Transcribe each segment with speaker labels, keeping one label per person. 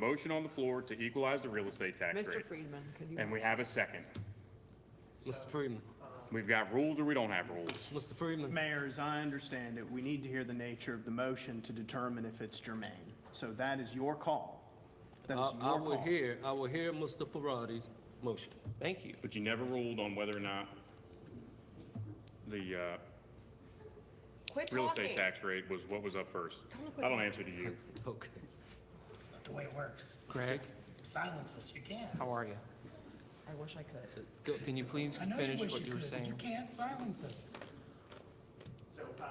Speaker 1: Motion on the floor to equalize the real estate tax
Speaker 2: Mr.
Speaker 1: rate.
Speaker 2: Friedman, could you?
Speaker 1: And we have a second.
Speaker 3: Mr. Friedman,
Speaker 1: We've got rules or we don't have rules.
Speaker 3: Mr. Friedman,
Speaker 4: Mayor, as I understand it, we need to hear the nature of the motion to determine if it's germane. So that is your call. That is
Speaker 3: I, I
Speaker 4: your
Speaker 3: will
Speaker 4: call.
Speaker 3: hear, I will hear Mr. Ferrari's motion.
Speaker 5: Thank you.
Speaker 1: But you never ruled on whether or not the uh,
Speaker 2: Quit
Speaker 1: real
Speaker 2: talking.
Speaker 1: estate tax rate was what was up first.
Speaker 2: Don't quit
Speaker 1: I don't answer to you.
Speaker 3: Okay.
Speaker 6: It's not the way it works.
Speaker 5: Greg,
Speaker 6: Silence us, you can't.
Speaker 5: how are you?
Speaker 2: I wish I could.
Speaker 5: Go- Can you please
Speaker 6: I know you
Speaker 5: finish
Speaker 6: wish
Speaker 5: what
Speaker 6: you
Speaker 5: you were
Speaker 6: could, but you
Speaker 5: saying?
Speaker 6: can't silence us.
Speaker 7: uh,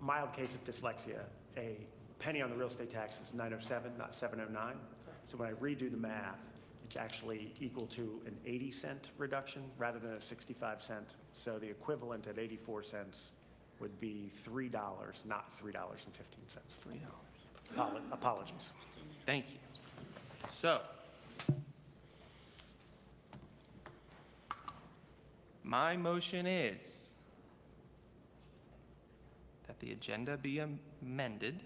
Speaker 7: mild case of dyslexia, a penny on the real estate tax is 907, not 709. So when I redo the math, it's actually equal to an 80 cent reduction rather than a 65 cent. So the equivalent at 84 cents would be $3, not $3.15.
Speaker 5: You know,
Speaker 7: Apolo- Apologies.
Speaker 5: Thank you. So. My motion is that the agenda be amended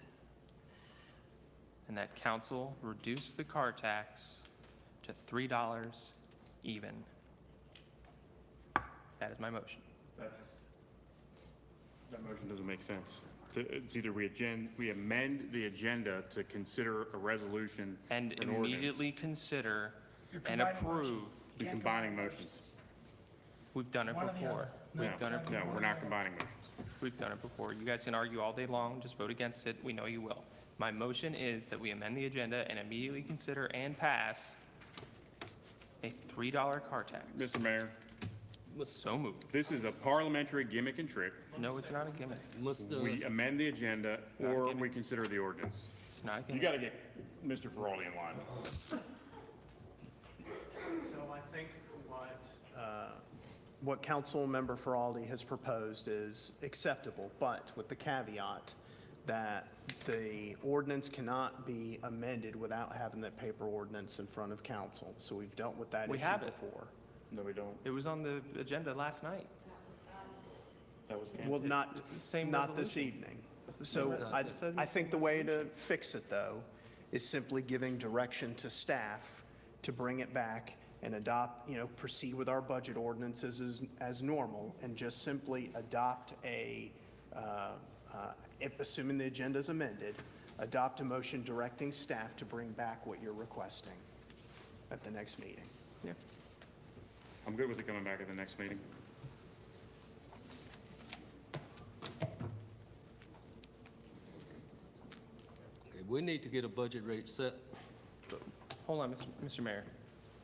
Speaker 5: and that council reduce the car tax to three dollars even. That is my motion.
Speaker 1: That motion doesn't make sense. It's either we agen, we amend the agenda to consider a resolution.
Speaker 5: And
Speaker 1: or an ordinance.
Speaker 5: immediately consider
Speaker 6: You're
Speaker 5: and
Speaker 6: combining
Speaker 5: approve.
Speaker 1: You're combining motions.
Speaker 5: We've done it
Speaker 6: One or the
Speaker 5: before.
Speaker 6: other.
Speaker 1: No,
Speaker 5: We've done it
Speaker 1: no,
Speaker 5: before.
Speaker 1: we're not combining motions.
Speaker 5: We've done it before. You guys can argue all day long, just vote against it. We know you will. My motion is that we amend the agenda and immediately consider and pass a $3 car tax.
Speaker 1: Mr. Mayor,
Speaker 5: So moved.
Speaker 1: this is a parliamentary gimmick and trick.
Speaker 5: No, it's not a gimmick.
Speaker 3: Mr.
Speaker 1: We amend the agenda or we consider the ordinance.
Speaker 5: It's not a
Speaker 1: You
Speaker 5: gimmick.
Speaker 1: gotta get Mr. Ferraldi in line.
Speaker 4: So I think what, uh, what Councilmember Feraldi has proposed is acceptable, but with the caveat that the ordinance cannot be amended without having that paper ordinance in front of council. So we've dealt with that issue
Speaker 5: We
Speaker 4: before.
Speaker 5: have it.
Speaker 1: No, we don't.
Speaker 5: It was on the agenda last night.
Speaker 1: That was
Speaker 4: Well, not,
Speaker 5: It's the same
Speaker 4: not this
Speaker 5: resolution.
Speaker 4: evening. So
Speaker 5: re-
Speaker 4: I,
Speaker 5: it's the
Speaker 4: I think the way to fix it, though, is simply giving direction to staff to bring it back and adopt, you know, proceed with our budget ordinances as, as normal and just simply adopt a, uh, uh, if- assuming the agenda is amended, adopt a motion directing staff to bring back what you're requesting at the next meeting.
Speaker 5: Yeah.
Speaker 1: I'm good with it coming back at the next meeting.
Speaker 3: We need to get a budget rate set.
Speaker 5: Hold on, Mr. Mr. Mayor.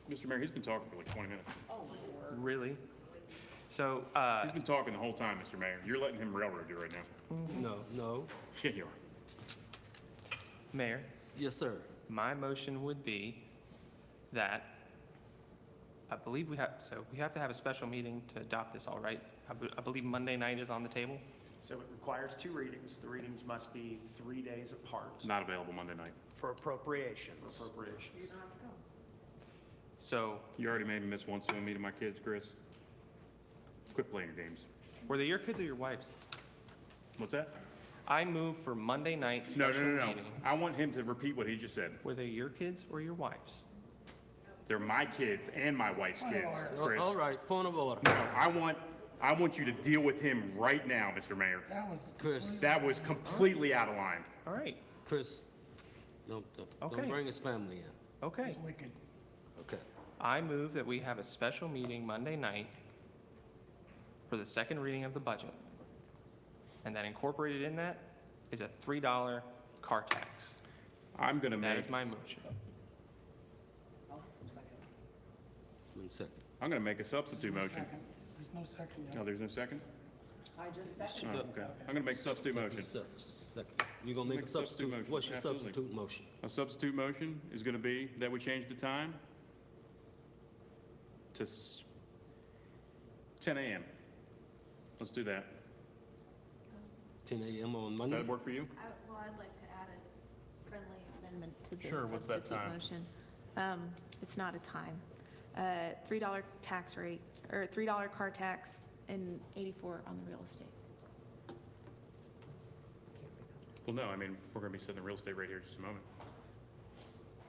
Speaker 1: Mr. Mayor, he's been talking for like 20 minutes.
Speaker 5: Really? So, uh,
Speaker 1: He's been talking the whole time, Mr. Mayor. You're letting him railroad you right now.
Speaker 3: No, no.
Speaker 1: Yeah, you are.
Speaker 5: Mayor,
Speaker 3: Yes, sir.
Speaker 5: My motion would be that, I believe we have, so we have to have a special meeting to adopt this, all right? I be- I believe Monday night is on the table.
Speaker 7: So it requires two readings. The readings must be three days apart.
Speaker 1: Not available Monday night.
Speaker 4: For appropriations.
Speaker 7: Appropriations.
Speaker 5: So
Speaker 1: You already made me miss one swim meet of my kids, Chris. Quit playing your games.
Speaker 5: were they your kids or your wife's?
Speaker 1: What's that?
Speaker 5: I move for Monday night
Speaker 1: No,
Speaker 5: special
Speaker 1: no, no, no.
Speaker 5: meeting.
Speaker 1: I want him to repeat what he just said.
Speaker 5: Were they your kids or your wife's?
Speaker 1: They're my kids and my wife's kids, Chris.
Speaker 3: All right, point of order.
Speaker 1: No, I want, I want you to deal with him right now, Mr. Mayor.
Speaker 6: That was.
Speaker 3: Chris,
Speaker 1: That was completely out of line.
Speaker 5: All right,
Speaker 3: Chris, don't, don't-
Speaker 5: Okay.
Speaker 3: don't bring his family in.
Speaker 5: okay.
Speaker 6: That's wicked.
Speaker 3: Okay.
Speaker 5: I move that we have a special meeting Monday night for the second reading of the budget. And that incorporated in that is a $3 car tax.
Speaker 1: I'm gonna
Speaker 5: That
Speaker 1: make,
Speaker 5: is my motion.
Speaker 3: It's been second.
Speaker 1: I'm gonna make a substitute motion.
Speaker 6: Second. There's no second.
Speaker 1: No,
Speaker 6: yeah.
Speaker 1: there's no second?
Speaker 2: I just said.
Speaker 1: Oh, okay. I'm gonna make a substitute motion.
Speaker 3: Sec- second. You gonna make a substitute,
Speaker 1: motion,
Speaker 3: what's your
Speaker 1: absolutely.
Speaker 3: substitute motion?
Speaker 1: A substitute motion is gonna be that we change the time to s- ten AM. Let's do that.
Speaker 3: Ten AM on
Speaker 1: Does
Speaker 3: Monday?
Speaker 1: that work for you?
Speaker 8: I- Well, I'd like to add a friendly amendment to the
Speaker 1: Sure, what's that
Speaker 8: substitute
Speaker 1: time?
Speaker 8: motion. Um, It's not a time. Uh, $3 tax rate, or $3 car tax and 84 on the real estate.
Speaker 1: Well, no, I mean, we're gonna be setting the real estate right here in just a moment.